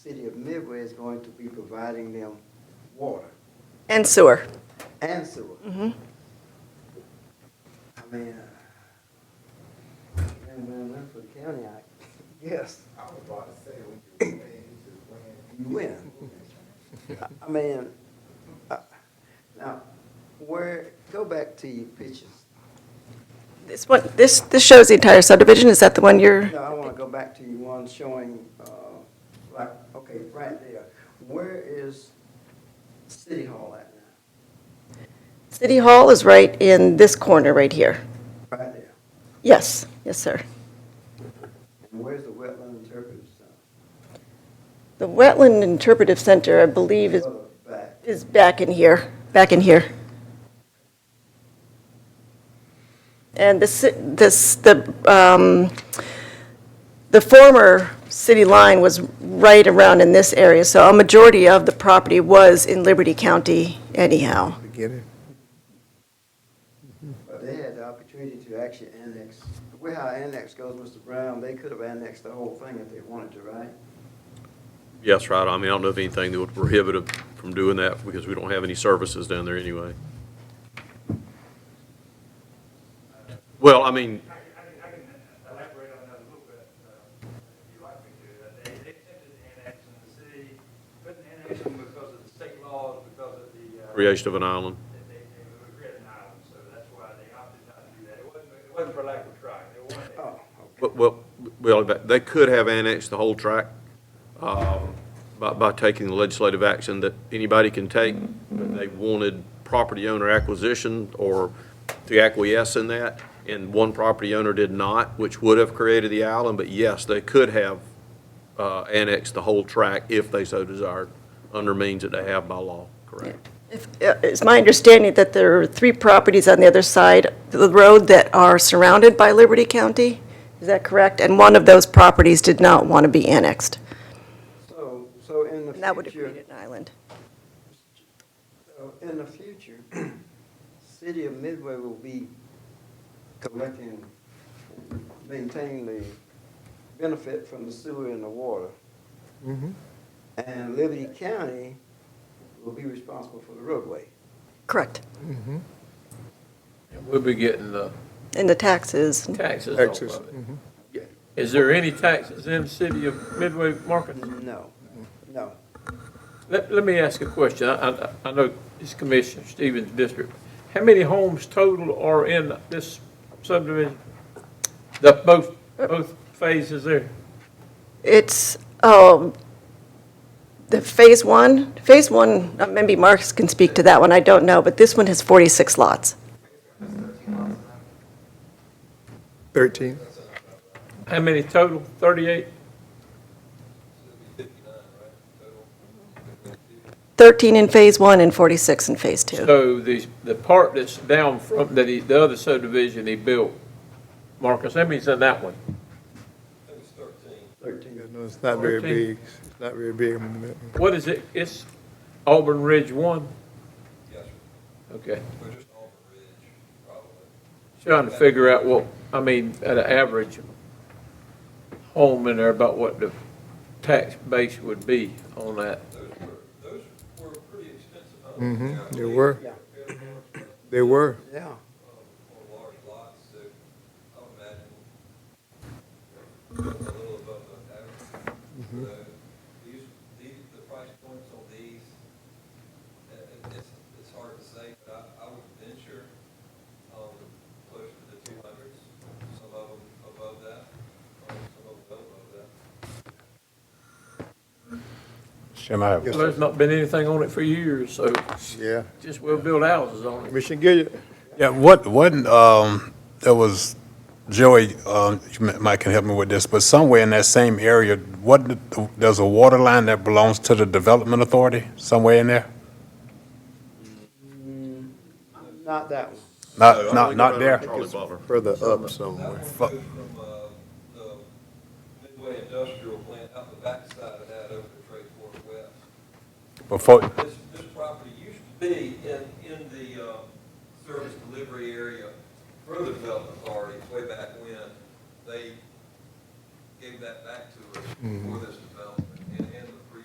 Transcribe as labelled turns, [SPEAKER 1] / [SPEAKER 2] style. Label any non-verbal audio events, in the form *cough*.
[SPEAKER 1] city of Midway is going to be providing them water
[SPEAKER 2] And sewer.
[SPEAKER 1] and sewer.
[SPEAKER 2] Mhm.
[SPEAKER 1] I mean, uh, and when I went for the county, I, yes,
[SPEAKER 3] I was about to say, when you win, you
[SPEAKER 1] you win. I mean, uh, now, where, go back to your pictures.
[SPEAKER 2] This one, this, this shows the entire subdivision, is that the one you're?
[SPEAKER 1] No, I want to go back to you one showing, uh, like, okay, right there. Where is City Hall at now?
[SPEAKER 2] City Hall is right in this corner right here.
[SPEAKER 1] Right there.
[SPEAKER 2] Yes, yes, sir.
[SPEAKER 1] And where's the wetland interpretive center?
[SPEAKER 2] The Wetland Interpretive Center, I believe, is,
[SPEAKER 1] Further Back.
[SPEAKER 2] is back in here, back in here. And this, this, the, um, the former city line was right around in this area, so a majority of the property was in Liberty County anyhow.
[SPEAKER 3] Beginning.
[SPEAKER 1] But they had the opportunity to actually annex, the way how annex goes, Mr. Brown, they could have annexed the whole thing if they wanted to, right?
[SPEAKER 4] Yes, right. I mean, I don't know of anything that would prohibit them from doing that because we don't have any services down there anyway. Well, I mean,
[SPEAKER 5] I can, I can, I can elaborate on that a little bit, uh, if you'd like me to. Uh, They, they attempted annexing the city, couldn't annex them because of the state laws, because of the, uh,
[SPEAKER 4] creation of an island.
[SPEAKER 5] that they, they were creating an island, so that's why they opted not to do that. It wasn't, it wasn't for lack of trying, they wanted.
[SPEAKER 1] Oh,
[SPEAKER 4] Well- Well, well, they could have annexed the whole tract um, by, by taking the legislative action that anybody can take. But they wanted property owner acquisition or to acquiesce in that. And one property owner did not, which would have created the island. But yes, they could have uh, annexed the whole tract if they so desired, under means that they have by law, correct?
[SPEAKER 2] If- uh, It's my understanding that there are three properties on the other side of the road that are surrounded by Liberty County. Is that correct? And one of those properties did not want to be annexed.
[SPEAKER 1] So, so in the
[SPEAKER 2] And that would have
[SPEAKER 1] future,
[SPEAKER 2] created an island.
[SPEAKER 1] so in the future, *clears throat* City of Midway will be collecting, maintaining the benefit from the sewer and the water. Mm-hmm. And Liberty County will be responsible for the roadway.
[SPEAKER 2] Correct.
[SPEAKER 6] We'll be getting the
[SPEAKER 2] And the taxes.
[SPEAKER 6] taxes off
[SPEAKER 3] Taxes,
[SPEAKER 6] of it. Is there any taxes in the city of Midway Market?
[SPEAKER 1] No, no.
[SPEAKER 6] Let, let me ask a question. I, I, I know it's Commissioner Stevens' district. How many homes total are in this subdivision? The both, both phases there?
[SPEAKER 2] It's, um, the Phase One, Phase One, uh, maybe Marcus can speak to that one, I don't know, but this one has 46 lots.
[SPEAKER 3] 13.
[SPEAKER 6] How many total? Thirty-eight?
[SPEAKER 2] 13 in Phase One and 46 in Phase Two.
[SPEAKER 6] So the, the part that's down from, that he, the other subdivision he built, Marcus, how many's in that one?
[SPEAKER 1] Thirteen.
[SPEAKER 3] No, it's not very
[SPEAKER 6] 14.
[SPEAKER 3] big, it's not very big.
[SPEAKER 6] What is it? It's Auburn Ridge One?
[SPEAKER 7] Yes,
[SPEAKER 6] Okay.
[SPEAKER 7] we're just over Ridge, probably.
[SPEAKER 6] Trying to figure out what, I mean, at an average home in there, about what the tax base would be on that.
[SPEAKER 7] Those were, those were pretty expensive homes.
[SPEAKER 3] hmm
[SPEAKER 7] Yeah, I
[SPEAKER 3] they
[SPEAKER 7] believe
[SPEAKER 3] were,
[SPEAKER 1] Yeah.
[SPEAKER 7] they're more expensive
[SPEAKER 3] they were.
[SPEAKER 1] Yeah.
[SPEAKER 7] On large lots, so I would imagine a little above the average. So these, these, the price points on these, uh, uh, it's, it's hard to say, but I, I would venture, um, close to the two hundreds, some of them above that, um, some of them well above that.
[SPEAKER 8] Shem, I have,
[SPEAKER 3] Yes,
[SPEAKER 6] Well, There's not been anything on it for years, so
[SPEAKER 3] Yeah.
[SPEAKER 6] just we'll build houses on it.
[SPEAKER 3] Commissioner Gill,
[SPEAKER 8] yeah, what, what, um, there was, Joey, um, you m- might can help me with this, but somewhere in that same area, what, the- there's a water line that belongs to the Development Authority, somewhere in there?
[SPEAKER 1] Not that one.
[SPEAKER 8] Not, not, not there?
[SPEAKER 4] Charlie Butler.
[SPEAKER 3] further up somewhere.
[SPEAKER 7] That one goes from, uh, the Midway Industrial Plant out the backside of that over to Trade Fork West.
[SPEAKER 8] Before,
[SPEAKER 7] This, this property used to be in, in the, um, service delivery area for the development authorities way back when. They gave that back to us for this